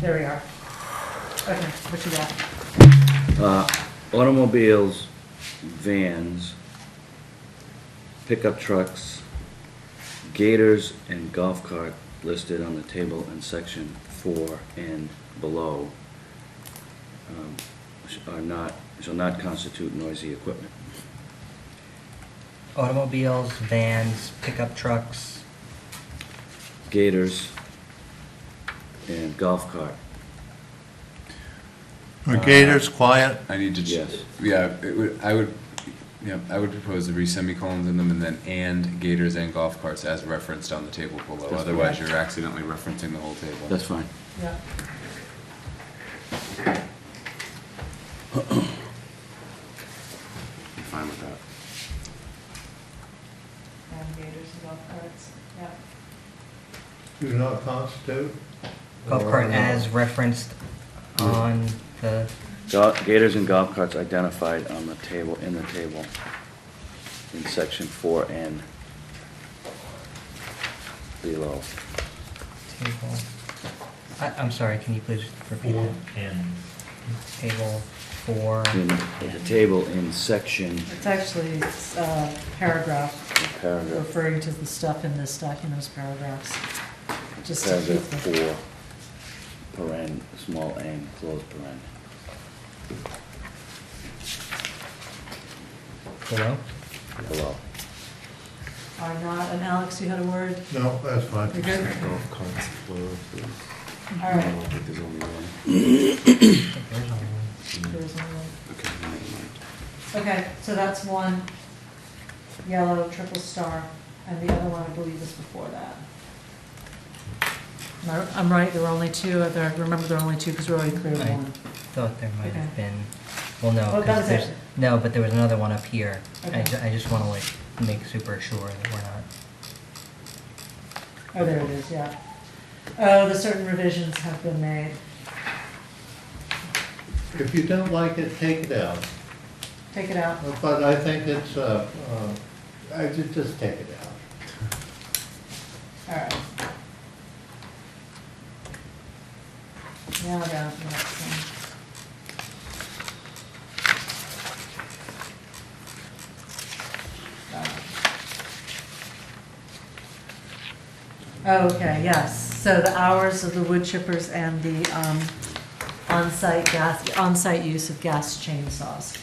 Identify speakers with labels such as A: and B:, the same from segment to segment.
A: There we are. Okay, what you got?
B: Uh, Automobiles, vans, pickup trucks, gators, and golf cart listed on the table in section four and below um, sh- are not, shall not constitute noisy equipment.
C: Automobiles, vans, pickup trucks,
B: Gators and golf cart,
D: Are gators quiet?
E: I need to,
B: Yes.
E: ch- yeah, it would, I would, yeah, I would propose to be semicolons in them and then and gators and golf carts as referenced on the table below.
B: That's
E: Otherwise,
B: correct.
E: you're accidentally referencing the whole table.
B: that's fine.
A: Yeah.
E: I'm fine with that.
A: And gators and golf carts, yeah.
D: Do not constitute?
C: golf cart as referenced on the,
B: Go- Gators and golf carts identified on the table, in the table, in section four and below.
C: table. I, I'm sorry, can you please repeat that?
F: and
C: Table four.
B: In the table in section,
A: It's actually uh, paragraph
B: paragraph,
A: referring to the stuff in this document as paragraphs. Just to keep
B: paragraph
A: the,
B: four, paren, small and, close paren.
C: Below?
B: Below.
A: are not, and Alex, you had a word?
D: No, that's fine.
A: You're good?
E: Golf carts,
A: All right.
E: think there's only one.
C: There's only one.
A: There was only one.
E: Okay, never mind.
A: Okay, so that's one yellow triple star, and the other one, I believe, is before that. Am I- I'm right, there were only two, I remember there were only two, because we already cleared
C: Right.
A: one.
C: Thought there might have
A: Okay.
C: been, well, no.
A: Oh, that
C: 'cause
A: was
C: there's-
A: it.
C: No, but there was another one up here. I,
A: Okay.
C: ju- I just wanna like make super sure that we're not.
A: Oh, there it is, yeah. Oh, the certain revisions have been made.
D: If you don't like it, take it out.
A: Take it out.
D: But I think it's, uh, uh, I ju- just take it out.
A: All right. Now down to the next one. That one. Oh, Okay, yes, so the hours of the wood chippers and the um, on-site gas, on-site use of gas chainsaws.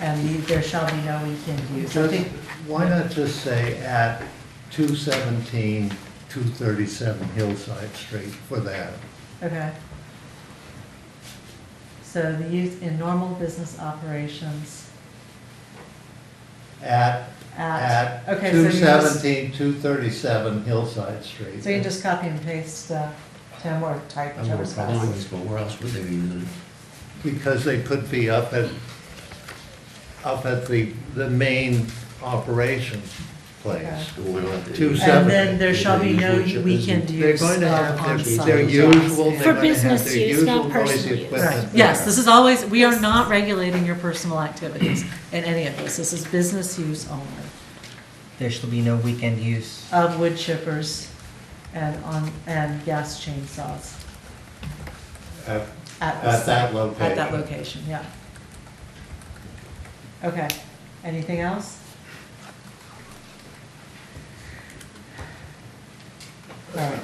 A: And the- there shall be no weekend use. I
D: Just-
A: think,
D: Why not just say at 217, 237 Hillside Street for that?
A: Okay. So the use in normal business operations
D: At,
A: at.
D: at
A: okay. so you just-
D: 217, 237 Hillside Street.
A: So you just copy and paste, uh, Tim, or type,
G: I'm
A: whichever's
G: gonna call
A: fast.
G: this, but where else would they be using it?
D: Because they could be up at, up at the, the main operations place.
G: Well, we don't have to-
D: Two
A: And then
D: seven.
A: there shall be no
G: Use wood
A: weekend
G: chippers.
D: They're
A: use
D: going
A: of
D: to have their-
A: on-site.
D: their usual, they're
H: For
D: going to have
H: business
D: their
H: use, not
D: usual noisy
H: personal use.
D: equipment.
A: Right, yes,
D: there.
A: this is always, we are not regulating your personal activities in any of this. This is business use only
C: There shall be no weekend use.
A: of wood chippers and on, and gas chainsaws
D: At-
A: at the
D: At
A: site.
D: that location.
A: At that location, yeah. Okay, anything else? All right.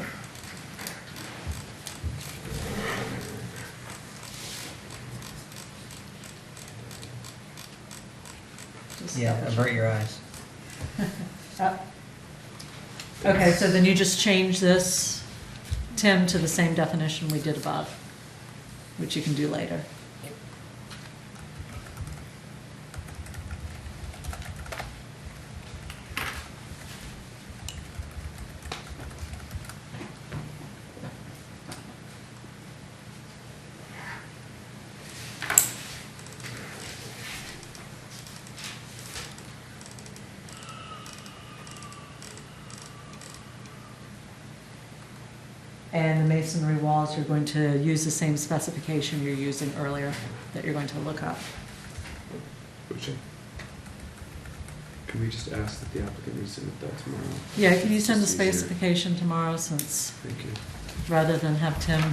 A: Just
C: Yeah,
A: double check.
C: avert your eyes.
A: Up. Oh. Okay, so then you just change this, Tim, to the same definition we did above, which you can do later. And the masonry walls, you're going to use the same specification you're using earlier that you're going to look up.
I: Which, can we just ask that the applicant resubmit that tomorrow?
A: Yeah, can you send the
I: Just easier.
A: specification tomorrow since,
I: Thank you.
A: rather than have Tim